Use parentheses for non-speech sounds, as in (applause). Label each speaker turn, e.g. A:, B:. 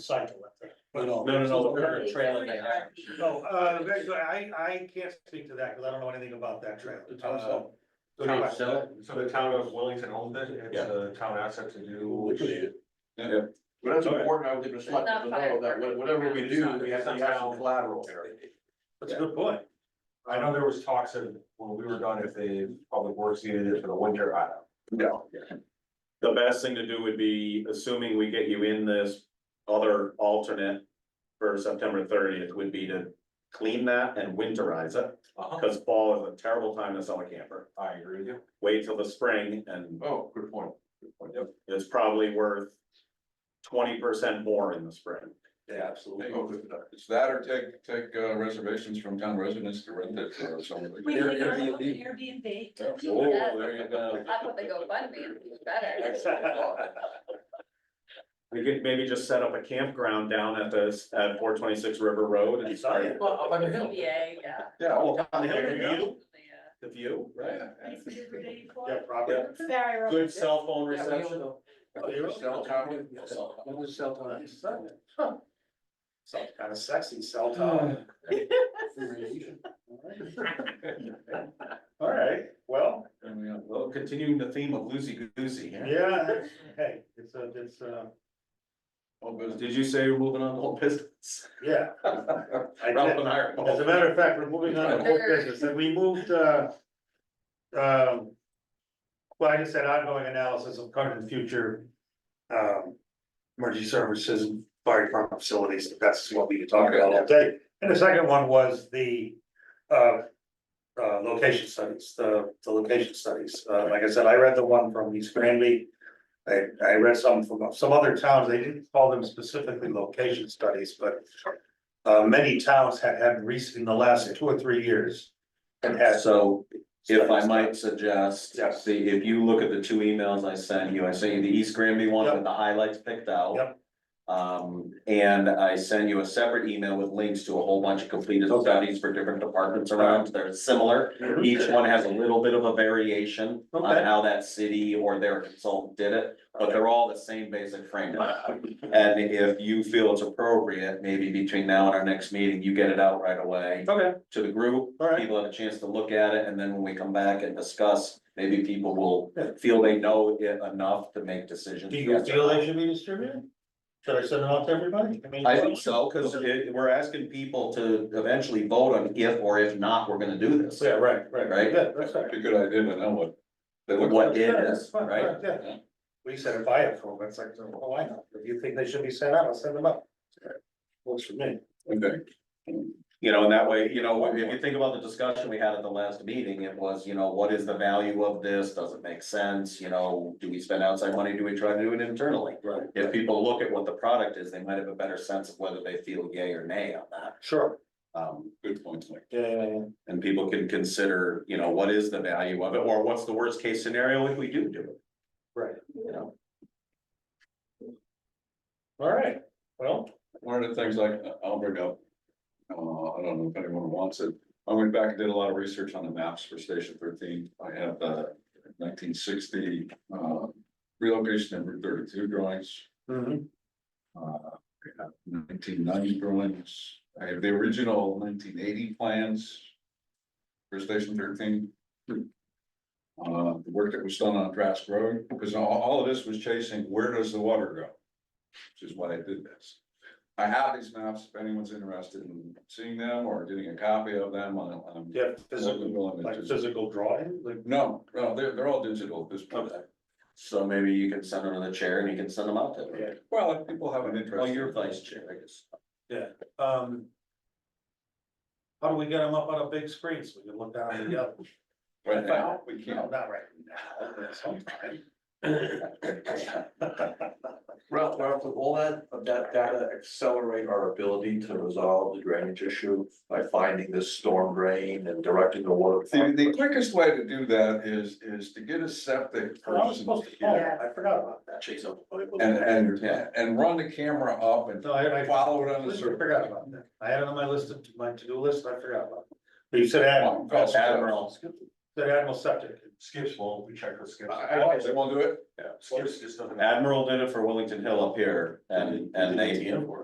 A: cycle up there.
B: No, no,
C: No, no, no, the
B: no.
C: current trailer they have.
A: So, uh, very good. I, I can't speak to that, because I don't know anything about that trail.
B: The town itself.
A: So do I.
C: Town sell it?
D: So the town of Wellington owns it, it's a town asset to do.
B: Yeah. But that's important, I would think, to select
E: Not
B: to know that wha- whatever we do, we have to have some collateral.
A: That's a good point.
D: I know there was talks of, when we were done, if the public works needed it for the winter, I don't.
B: No.
F: The best thing to do would be, assuming we get you in this other alternate for September thirtieth, would be to clean that and winterize it,
D: Uh-huh.
F: because fall is a terrible time to sell a camper.
D: I agree with you.
F: Wait till the spring and
B: Oh, good point. Good point. Yep.
F: it's probably worth twenty percent more in the spring.
B: Yeah, absolutely.
G: It's that or take, take uh, reservations from town residents to rent it or something.
E: We need to go to
B: Airbnb.
E: Airbnb.
G: Oh, there you go.
E: That's what they go fund me, it's better.
F: (laughs) We could maybe just set up a campground down at this, at four twenty-six River Road and start.
B: Well, up on the hill.
E: CBA, yeah.
B: Yeah.
F: Oh, down the hill,
B: There
F: the
B: you go.
F: view,
E: Yeah.
F: the view, right?
E: Nice to do for day four.
A: Yeah, probably.
F: Yeah.
E: Very rough.
F: Good cell phone
B: Yeah, we
F: reception.
B: own the-
A: Oh, you own-
B: Cell tower. Own the cell tower.
A: Sounds kind of sexy,
F: (sighs)
A: cell tower.
E: (laughs)
A: All right, well,
F: Well, continuing the theme of loosey goosey.
A: yeah, that's- hey, it's a, it's a,
B: Oh, but
F: Did you say you're moving on to whole (laughs) business?
A: yeah. I
B: Ralph
A: did,
B: and I are
A: as a
B: both.
A: matter of fact, we're moving on to whole business, and we moved, uh, um, well, I just said ongoing analysis of current and future, um, emergency services, and fire department facilities, that's what we could talk about all day. And the second one was the, uh, uh, location studies, the, the location studies. Uh, like I said, I read the one from East Granby. I, I read some from some other towns. They didn't call them specifically location studies, but uh, many towns had, had recent, in the last two or three years. And had.
G: So if I might suggest,
A: Yes.
G: see, if you look at the two emails I sent you, I sent you the East Granby one
A: Yep.
G: with the highlights picked out.
A: Yep.
G: Um, and I send you a separate email with links to a whole bunch of completed
A: Okay.
G: studies for different departments around, they're similar. Each one has a little bit of a variation
A: Okay.
G: on how that city or their consultant did it, but they're all the same basic framework. And if you feel it's appropriate, maybe between now and our next meeting, you get it out right away
A: Okay,
G: to the group.
A: All right.
G: People have a chance to look at it, and then when we come back and discuss, maybe people will feel they know it enough to make decisions.
A: do you feel they should be distributed? Should I send it out to everybody? mean,
G: I think so, because it, we're asking people to eventually vote on if or if not, we're gonna do this.
A: Yeah, right, right, right,
G: Right?
A: good, that's all right.
G: a good idea to know what.
B: they look
G: What it
A: Yeah,
G: is,
A: fine,
G: right?
A: Yeah. We said if I approve, it's like, oh, I know, if you think they should be sent out, I'll send them out. Works for me.
G: You know, and that way, you know, if you think about the discussion we had at the last meeting, it was, you know, what is the value of this? Does it make sense? You know, do we spend outside money? Do we try to do it internally?
A: Right.
G: If people look at what the product is, they might have a better sense of whether they feel yay or nay on that.
A: Sure.
G: Um,
B: Good point. Mike.
A: Yeah, yeah, yeah.
G: and people can consider, you know, what is the value of it or what's the worst case scenario if we do do it,
A: Right,
G: you know?
A: all right, well,
B: One of the things like, I'll bring up. Uh, I don't know if anyone wants it. I went back and did a lot of research on the maps for station thirteen. I have the nineteen sixty, uh, relocation and Route thirty-two drawings.
C: Mm-hmm.
A: mhm,
B: Uh, Nineteen ninety drawings. I have the original nineteen eighty plans. For station thirteen. Uh, the work that was done on Trask Road, because all, all of this was chasing, where does the water go? Which is why I did this. I have these maps, if anyone's interested in seeing them or getting a copy of them, I- I'm.
A: yeah, physical, like
B: I'm-
A: physical drawing, like,
B: No, no, they're, they're all digital at this point.
G: So maybe you can send them to the chair and you can send them out to them.
B: Well, if people have an
G: Well,
B: interest.
G: you're vice chair, I guess.
A: um. How do we get them up on a big screen so we can look down and yell?
B: Right now, we
A: No,
B: can't.
A: not right now, but sometime.
C: (laughs) Ralph, Ralph, will that, that data accelerate our ability to resolve the drainage issue by finding this storm drain and directing the water?
B: The, the quickest way to do that is, is to get a septic
A: Oh, I was
B: person
A: supposed to call,
B: here
A: I forgot about that.
C: Chase up.
B: and, and,
G: Yeah.
B: and run the camera up and
A: No, I, I.
B: follow it on the
A: I
B: survey.
A: forgot about
B: Oh,
A: that. I had it on my list of, my to-do list, I forgot about it. But you said Adam.
B: Well,
G: Admiral,
H: that Admiral Septic.
A: Skips won't, we checked with Skips.
B: I, I, they won't do it?
A: Skips just doesn't.
G: Admiral did it for Wellington Hill up here and, and they,